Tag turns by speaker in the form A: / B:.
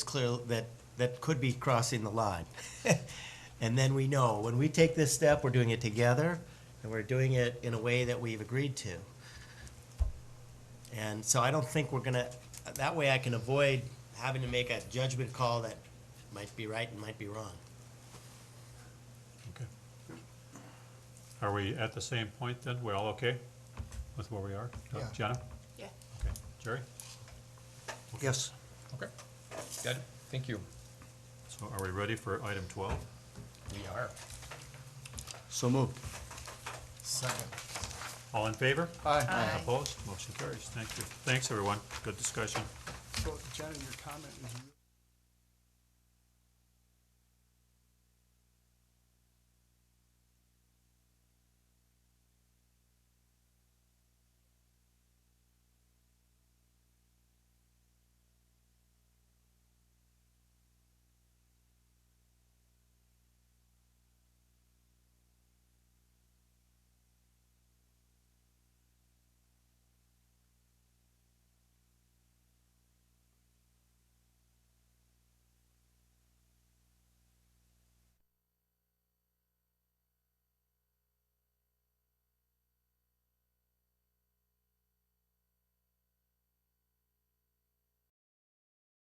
A: clear, that, that could be crossing the line. And then we know, when we take this step, we're doing it together, and we're doing it in a way that we've agreed to. And so I don't think we're gonna, that way I can avoid having to make a judgment call that might be right and might be wrong.
B: Okay. Are we at the same point then? We're all okay with where we are? Uh,
C: Yeah.
B: Jenna?
D: Yeah.
B: Okay. Jerry?
C: Yes.
E: Okay, got it, thank you.
B: So are we ready for item twelve?
E: We are.
C: So moved.
A: Second.
B: All in favor?
C: Aye.
D: Aye.
B: Opposed? Motion carries. Thank you. Thanks, everyone. Good discussion.
F: So, Jenna, your comment is really